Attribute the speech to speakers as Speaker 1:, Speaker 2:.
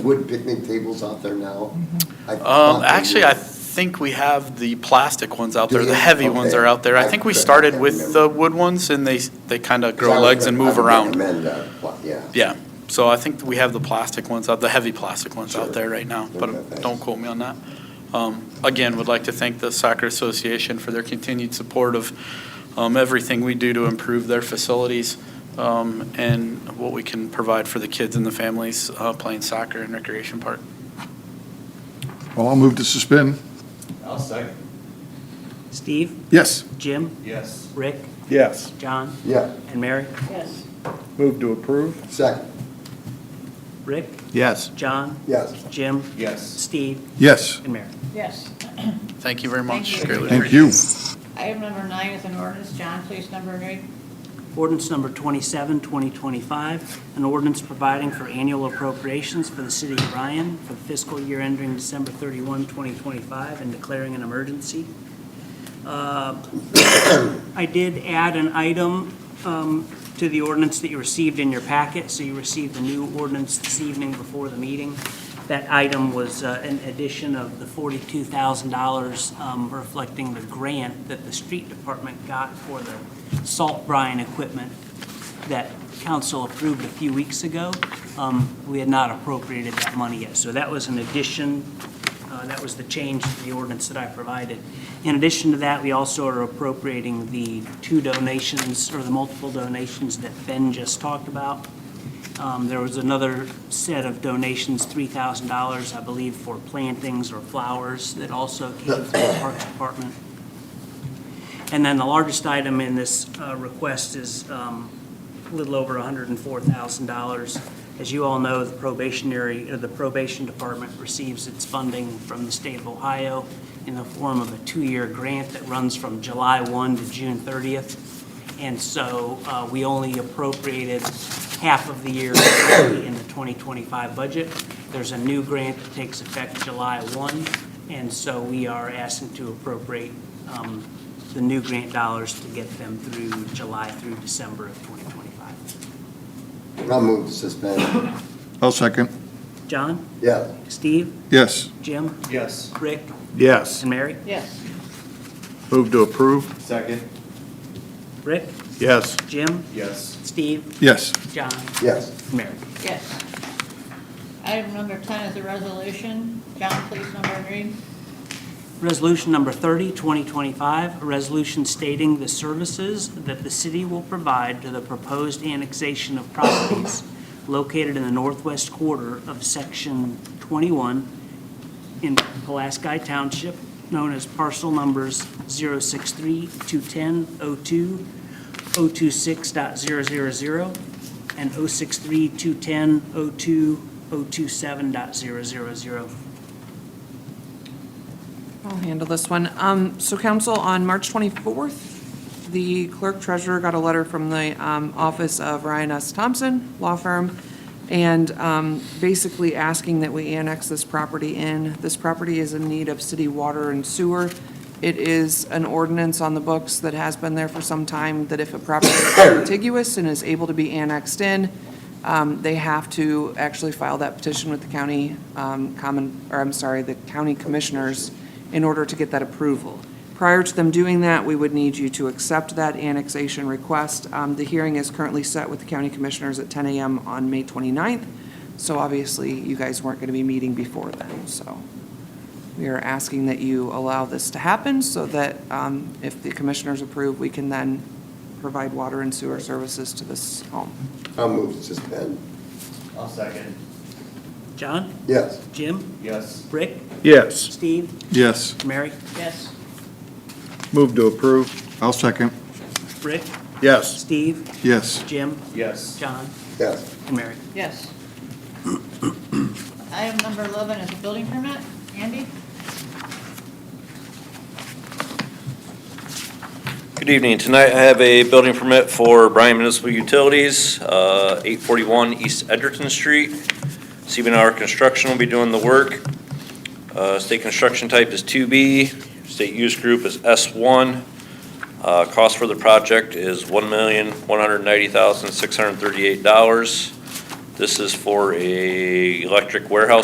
Speaker 1: wood picnic tables out there now? I thought
Speaker 2: Um,
Speaker 1: they
Speaker 2: actually,
Speaker 1: were.
Speaker 2: I think we have the plastic ones out
Speaker 1: Do
Speaker 2: there, the
Speaker 1: you?
Speaker 2: heavy ones
Speaker 1: Okay.
Speaker 2: are out there. I think we
Speaker 1: Okay.
Speaker 2: started
Speaker 1: I
Speaker 2: with
Speaker 1: remember.
Speaker 2: the wood ones and they, they kind of
Speaker 1: 'Cause I
Speaker 2: grow
Speaker 1: would
Speaker 2: legs and
Speaker 1: rec- I
Speaker 2: move
Speaker 1: would
Speaker 2: around.
Speaker 1: recommend that, but, yeah.
Speaker 2: Yeah, so I think we have the plastic ones out, the heavy plastic ones out
Speaker 1: Sure.
Speaker 2: there right now,
Speaker 1: Okay,
Speaker 2: but
Speaker 1: thanks.
Speaker 2: don't quote me on that. Um, Again, would like to thank the Soccer Association for their continued support of um, everything we do to improve their facilities um, and what we can provide for the kids and the families uh, playing soccer in Recreation Park.
Speaker 3: Well, I'll move to suspend.
Speaker 4: I'll second.
Speaker 5: Steve,
Speaker 3: Yes.
Speaker 5: Jim,
Speaker 4: Yes.
Speaker 5: Rick,
Speaker 6: Yes.
Speaker 5: John,
Speaker 1: Yeah,
Speaker 5: and Mary.
Speaker 7: Yes,
Speaker 6: Move to approve?
Speaker 1: second,
Speaker 5: Rick,
Speaker 6: Yes.
Speaker 5: John,
Speaker 1: yes.
Speaker 5: Jim,
Speaker 4: Yes.
Speaker 5: Steve,
Speaker 3: Yes.
Speaker 5: and Mary.
Speaker 7: yes.
Speaker 2: Thank you very
Speaker 7: Thank
Speaker 2: much.
Speaker 7: you.
Speaker 2: Greatly
Speaker 3: Thank you.
Speaker 7: Item number nine is an ordinance. John, please number and read.
Speaker 5: Ordinance number 27, 2025, an ordinance providing for annual appropriations for the city of Ryan for the fiscal year ending December 31, 2025, and declaring an emergency. Uh, I did add an item um, to the ordinance that you received in your packet, so you received the new ordinance this evening before the meeting. That item was uh, an addition of the $42,000 um, reflecting the grant that the street department got for the salt brine equipment that council approved a few weeks ago. Um, We had not appropriated that money yet, so that was an addition uh, That was the change to the ordinance that I provided. In addition to that, we also are appropriating the two donations, or the multiple donations that Ben just talked about. Um, There was another set of donations, $3,000, I believe, for plantings or flowers that also came from the Parks Department. And then the largest item in this uh, request is um, a little over $104,000. As you all know, the probationary, or the probation department receives its funding from the state of Ohio in the form of a two-year grant that runs from July 1 to June 30th. And so uh, we only appropriated half of the year in the 2025 budget. There's a new grant that takes effect July 1, and so we are asking to appropriate um, the new grant dollars to get them through July through December of 2025.
Speaker 1: I'll move to suspend,
Speaker 3: I'll second.
Speaker 5: John,
Speaker 1: yeah.
Speaker 5: Steve,
Speaker 3: Yes.
Speaker 5: Jim,
Speaker 4: Yes.
Speaker 5: Rick,
Speaker 6: Yes.
Speaker 5: and Mary.
Speaker 7: Yes,
Speaker 6: Move to approve?
Speaker 4: Second.
Speaker 5: Rick,
Speaker 6: Yes.
Speaker 5: Jim,
Speaker 4: Yes.
Speaker 5: Steve,
Speaker 3: Yes.
Speaker 5: John,
Speaker 1: Yes,
Speaker 5: and Mary.
Speaker 7: yes. Item number 10 is a resolution. John, please number and read.
Speaker 5: Resolution number 30, 2025, a resolution stating the services that the city will provide to the proposed annexation of properties located in the northwest quarter of Section 21 in Pulaski Township, known as parcel numbers 063 210 2 026.000 and 063 210 2 027.000.
Speaker 8: I'll handle this one. Um, So council, on March 24th, the clerk treasurer got a letter from the um, office of Ryan S. Thompson Law Firm, and um, basically asking that we annex this property in. This property is in need of city water and sewer. It is an ordinance on the books that has been there for some time, that if a property is contiguous and is able to be annexed in, um, they have to actually file that petition with the county um, common, or I'm sorry, the county commissioners in order to get that approval. Prior to them doing that, we would need you to accept that annexation request. Um, The hearing is currently set with the county commissioners at 10 AM on May 29th, so obviously you guys weren't going to be meeting before then, so we are asking that you allow this to happen so that um, if the commissioners approve, we can then provide water and sewer services to this home.
Speaker 1: I'll move to suspend,
Speaker 4: I'll second.
Speaker 5: John,
Speaker 1: yes.
Speaker 5: Jim,
Speaker 4: Yes.
Speaker 5: Rick,
Speaker 6: Yes.
Speaker 5: Steve,
Speaker 3: Yes.
Speaker 5: Mary,
Speaker 7: Yes,
Speaker 6: Move to approve?
Speaker 3: I'll second.
Speaker 5: Rick,
Speaker 6: Yes.
Speaker 5: Steve,
Speaker 3: Yes.
Speaker 5: Jim,
Speaker 4: Yes.
Speaker 5: John,
Speaker 1: Yes,
Speaker 5: and Mary.
Speaker 7: yes. Item number 11 is a building permit. Andy?
Speaker 9: Good evening. Tonight I have a building permit for Bryan Municipal Utilities, uh, 841 East Edgerton Street. CBNR Construction will be doing the work. Uh, State construction type is 2B, state use group is S1. Uh, Cost for the project is $1,190,638. This is for a electric warehouse